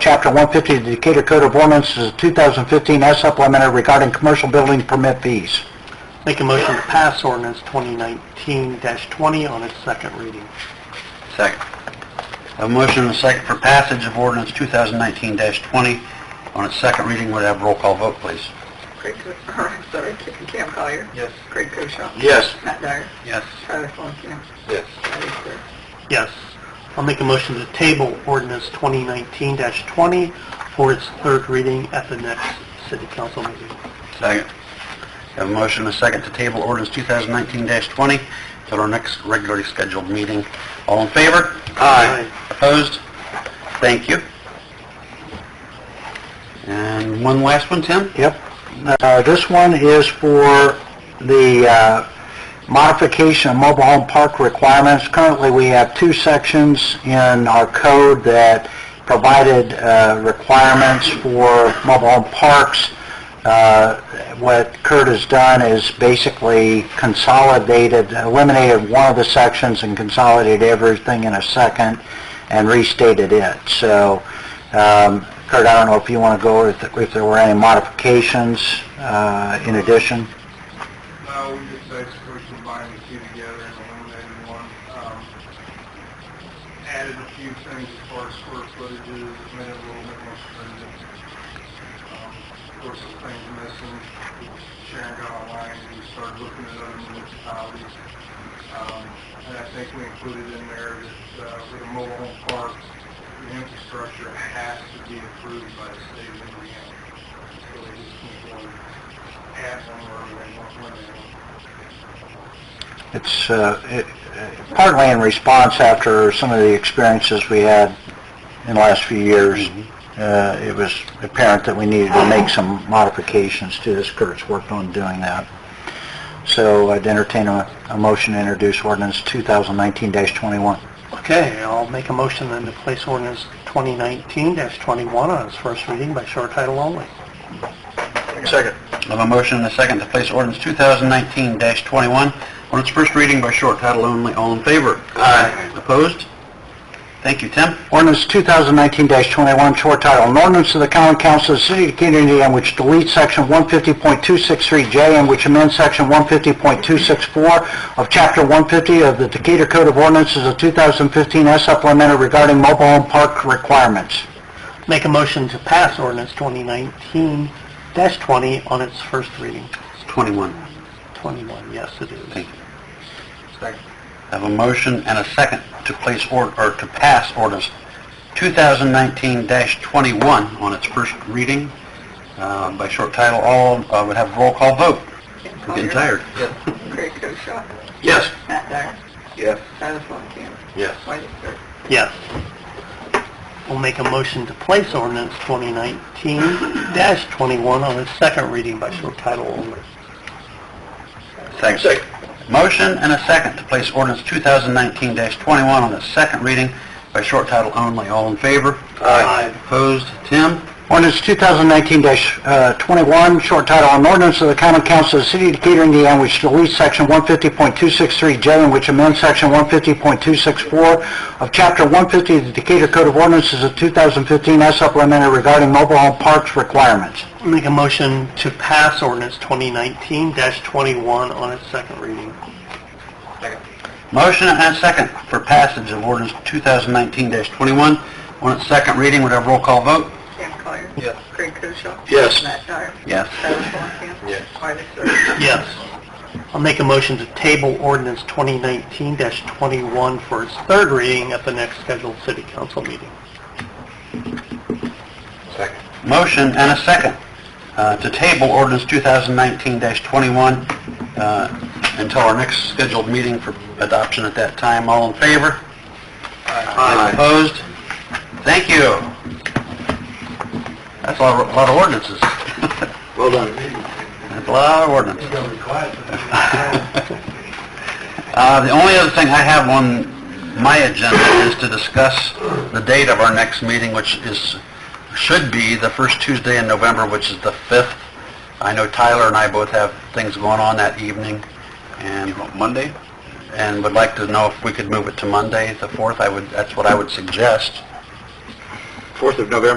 Chapter 150 of the Decatur Code of Ordinances, 2015, as supplemented regarding commercial building permit fees. Make a motion to pass ordinance 2019-20 on its second reading. Second. A motion and a second for passage of ordinance 2019-20 on its second reading. Would have roll call vote, please. Craig, or, sorry, Ca- Cam Collier. Yes. Craig Koshaw. Yes. Matt Dyer. Yes. Tyler Fulenkamp. Yes. Wiley Sir. Yes. I'll make a motion to table ordinance 2019-20 for its third reading at the next city council meeting. Second. Have a motion and a second to table ordinance 2019-20 till our next regularly scheduled meeting. All in favor? Aye. Opposed? Thank you. And one last one, Tim? Yep. Uh, This one is for the uh, modification of mobile home park requirements. Currently, we have two sections in our code that provided uh, requirements for mobile home parks. Uh, What Kurt has done is basically consolidated, eliminated one of the sections and consolidated everything in a second and restated it. So um, Kurt, I don't know if you want to go, if if there were any modifications uh, in addition? No, we just basically combined the two together and eliminated one. Um, Added a few things as far as square footage, made it a little bit more stringent. Um, Of course, the things missing, Sharon got online and we started looking at other municipalities. Um, And I think we included in there that uh, for the mobile home park, the infrastructure has to be approved by the state of Indiana. So they just can't go add one or eliminate one. It's uh, it- uh, partly in response after some of the experiences we had in the last few years. Uh, It was apparent that we needed to make some modifications to this. Kurt's worked on doing that. So I'd entertain a a motion to introduce ordinance 2019-21. Okay, I'll make a motion then to place ordinance 2019-21 on its first reading by short title only. Second. I have a motion and a second to place ordinance 2019-21 on its first reading by short title only. All in favor? Aye. Opposed? Thank you, Tim. Ordinance 2019-21, short title, an ordinance of the common council of the city of Decatur, Indiana, which deletes section 150.263J and which amends section 150.264 of chapter 150 of the Decatur Code of Ordinances of 2015 as supplemented regarding mobile home park requirements. Make a motion to pass ordinance 2019-20 on its first reading. 21. 21, yes it is. I have a motion and a second to place or, or to pass ordinance 2019-21 on its first reading uh, by short title. All uh, would have roll call vote. Cam I'm getting Collier. tired. Craig Koshaw. Yes. Matt Dyer. Yes. Tyler Fulenkamp. Yes. Wiley uh, Sir. Yes. We'll make a motion to place ordinance 2019-21 on its second reading by short title only. Thanks. Motion and a second to place ordinance 2019-21 on its second reading by short title only. All in favor? Aye. Opposed? Tim? Ordinance 2019-21, short title, an ordinance of the common council of the city of Decatur, Indiana, which deletes section 150.263J and which amends section 150.264 of chapter 150 of the Decatur Code of Ordinances of 2015 as supplemented regarding mobile home parks requirements. Make a motion to pass ordinance 2019-21 on its second reading. Motion and a second for passage of ordinance 2019-21 on its second reading. Would have roll call vote? Cam Collier. Yes. Craig Koshaw. Yes. Matt Dyer. Yes. Tyler Fulenkamp. Yes. Wiley uh, Sir. Yes. I'll make a motion to table ordinance 2019-21 for its third reading at the next scheduled city council meeting. Motion and a second uh, to table ordinance 2019-21 uh, until our next scheduled meeting for adoption at that time. All in favor? Aye. Opposed? Thank you. That's a lot of- a lot of ordinances. Well done. That's a lot of ordinances. Uh, The only other thing I have on my agenda is to discuss the date of our next meeting, which is, should be the first Tuesday in November, which is the 5th. I know Tyler and I both have things going on that evening, and... Monday? And would like to know if we could move it to Monday, the 4th, I would, that's what I would suggest. 4th of November